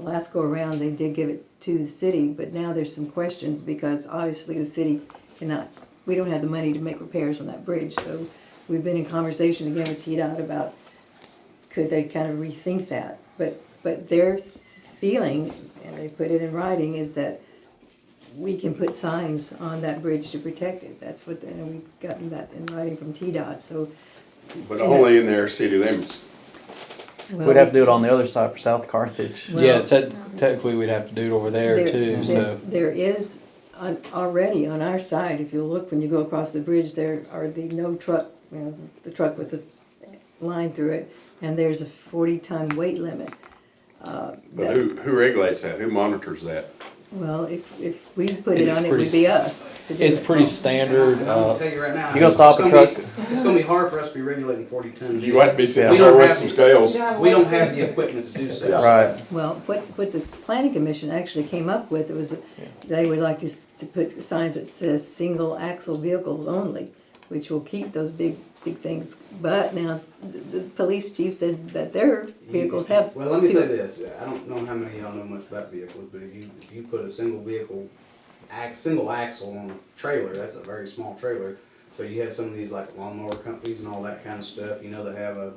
last go around, they did give it to the city, but now there's some questions because obviously the city cannot, we don't have the money to make repairs on that bridge, so we've been in conversation again with TDOT about could they kind of rethink that? But, but their feeling, and they put it in writing, is that we can put signs on that bridge to protect it. That's what, and we've gotten that in writing from TDOT, so. but only in their city limits. We'd have to do it on the other side for South Carthage. Well- yeah, te- technically we'd have to do it over there, too. there- So There is, on, already on our side, if you look, when you go across the bridge, there are the no truck, you know, the truck with the line through it, and there's a forty ton weight limit. Uh, But that's- who, who regulates that? Who monitors that? Well, if, if we put it It's on, it would pretty- be us to do it's it. pretty standard. I'm gonna Uh, tell you right now. You gonna stop a it's gonna truck? be- It's gonna be hard for us to be regulating forty tons. You might be sitting We there don't with have- some scales. We don't have the equipment to do so. Right. Well, what, what the planning commission actually came up with was, they would like to, s- to put signs that says single axle vehicles only, which will keep those big, big things, but now, the, the police chief said that their vehicles have. Well, let me say two. this, I don't know how many of y'all know much about vehicles, but if you, if you put a single vehicle, ax, single axle on a trailer, that's a very small trailer. So you have some of these like lawnmower companies and all that kind of stuff, you know, that have a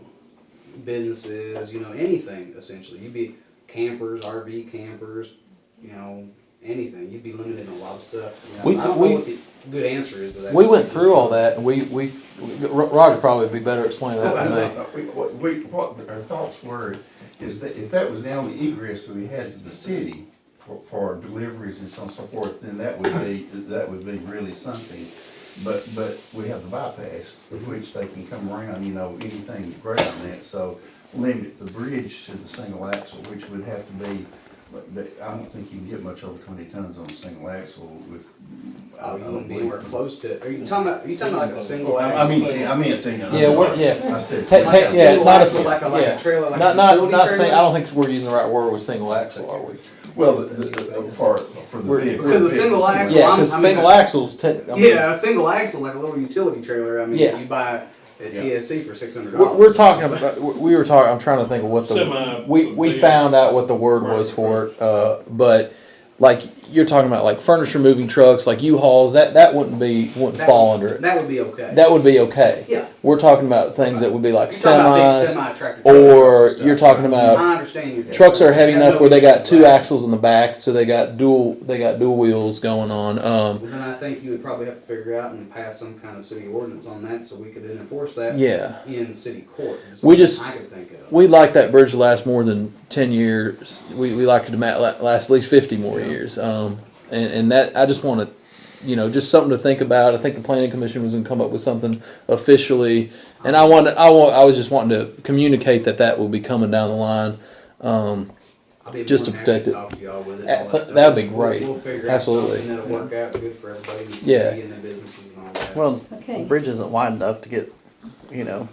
businesses, you know, anything essentially. You'd be campers, RV campers, you know, anything. You'd be limited in a lot of stuff. You know, We- so I don't we- know what the good answer is to that. we went through all that, and we, we Ro- Roger probably would be better at explaining that than me. Uh, we- What we- what our thoughts were is that if that was the only egress that we had to the city for, for deliveries and so on and so forth, then that would be, that would be really something. But, but we have the bypass, of which they can come around, you know, anything great on that, so limit the bridge to the single axle, which would have to be, but that- I don't think you can get much over twenty tons on a single axle with. I Oh, you don't wouldn't be believe- anywhere close to, are you talking about, are you talking about like a single axle? I I mean, I mean, ten, I'm Yeah, what- sorry. yeah. I said. Ta- ta- 20 Like a yeah, it's single not a axle, like a- like a yeah. trailer, like not a not, utility not saying. I trailer? don't think we're using the right word with single axle, are we? Well, the, the, the- for, for the We're- vehicle. because a single axle- Well, Yeah, I'm- because I mean, single uh, axles. Te- I mean, Yeah, a single axle, like a little utility trailer. I mean, Yeah. you buy a Yeah. TSC for six hundred We're, dollars. we're talking about. We were talking. I'm trying to think of what the Semi- we we yeah. found out what the word was for it. Uh, but like you're talking about like furniture moving trucks, like U-Hauls. That that wouldn't be wouldn't fall under it. That would be okay. That would be okay. Yeah. We're talking about things that would be like You're talking about big semis, semi-tractor trailers or and stuff. you're talking about I understand you. trucks are heavy Have enough no where they got issue two with that. axles in the back, so they got dual they got dual wheels going on. Um, Well, then I think you would probably have to figure out and pass some kind of city ordinance on that, so we could then enforce that yeah. in city court. It's We something just- I could think of. We like that bridge to last more than ten years. We we like it to ma- la- last at least fifty more years. Um, and, and that I just want to, you know, just something to think about. I think the planning commission was going to come up with something officially, and I wanted I want I was just wanting to communicate that that will be coming down the line. Um, I'll be just to more than happy protect it. Talk to y'all with it. and Uh, all th- that stuff. that'd be We'll- great. We'll figure Absolutely. out something that'll work out good for everybody in the Yeah. city and the businesses and all that. Well, the Okay. bridge isn't wide enough to get, you know,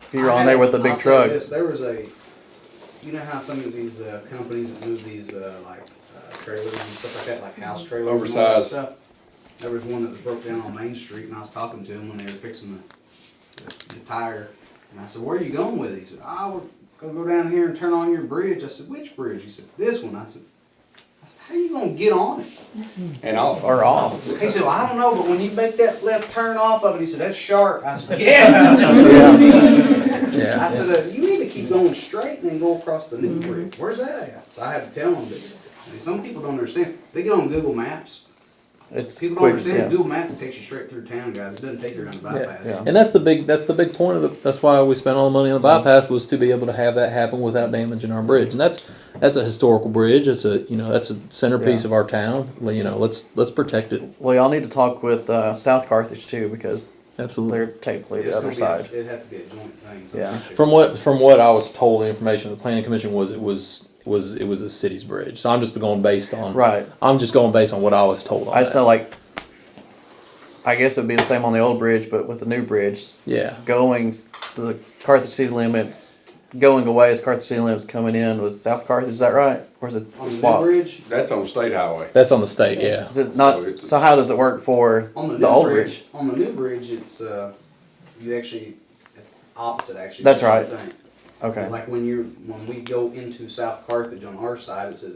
if you're I on had- there with a big I'll say truck. this, there was a, you know how some of these uh, companies that move these uh, like uh, trailers and stuff like that, like house trailers, and all that Oversized. stuff. There was one that was broke down on Main Street, and I was talking to him when they were fixing the, the, the tire, and I said, "Where are you going with it?" He said, "Oh, we're gonna go down here and turn on your bridge." I said, "Which bridge?" He said, "This one." I said. I said, How you gonna get on it? And I'll, Or off. He said, well, I don't know, but when you make that left turn off of it, he said, that's sharp. I said, yeah. I said, yeah. I said, uh, you need to keep going straight and then go across the new Mm-hmm. bridge. Where's that at? So I had to tell them that. I mean, some people don't understand. They get on Google Maps. It's People don't quick, understand. yeah. Google Maps takes you straight through town, guys. It doesn't take you around the bypass. yeah. And that's the big that's the big point of it. That's why we spent all the money on the bypass was to be able to have that happen without damaging our bridge. And that's that's a historical bridge. It's a you know that's a centerpiece Yeah. of our town. Well, You know let's let's protect it. Well, y'all need to talk with uh, South Carthage too because Absolutely. they're technically It's the other gonna be a- side. It'd have to be a joint thing. so Yeah. sure. From what from what I was told, the information of the planning commission was it was was it was the city's bridge. So I'm just going based on Right. I'm just going based on what I was told. On I just that. know like, I guess it'd be the same on the old bridge, but with the new bridge, yeah. going s- the Carthage city limits, going away is Carthage city limits, coming in was South Carthage. Is that right? Or is it On the new swap? bridge, that's on state highway. That's on the state. Yeah. Is it not? So it's- So how does it work for on the, the, new old bridge, bridge? on the new bridge, it's uh, you actually it's opposite actually. That's That's what right. you think. Okay. Like when you're, when we go into South Carthage on our side, it says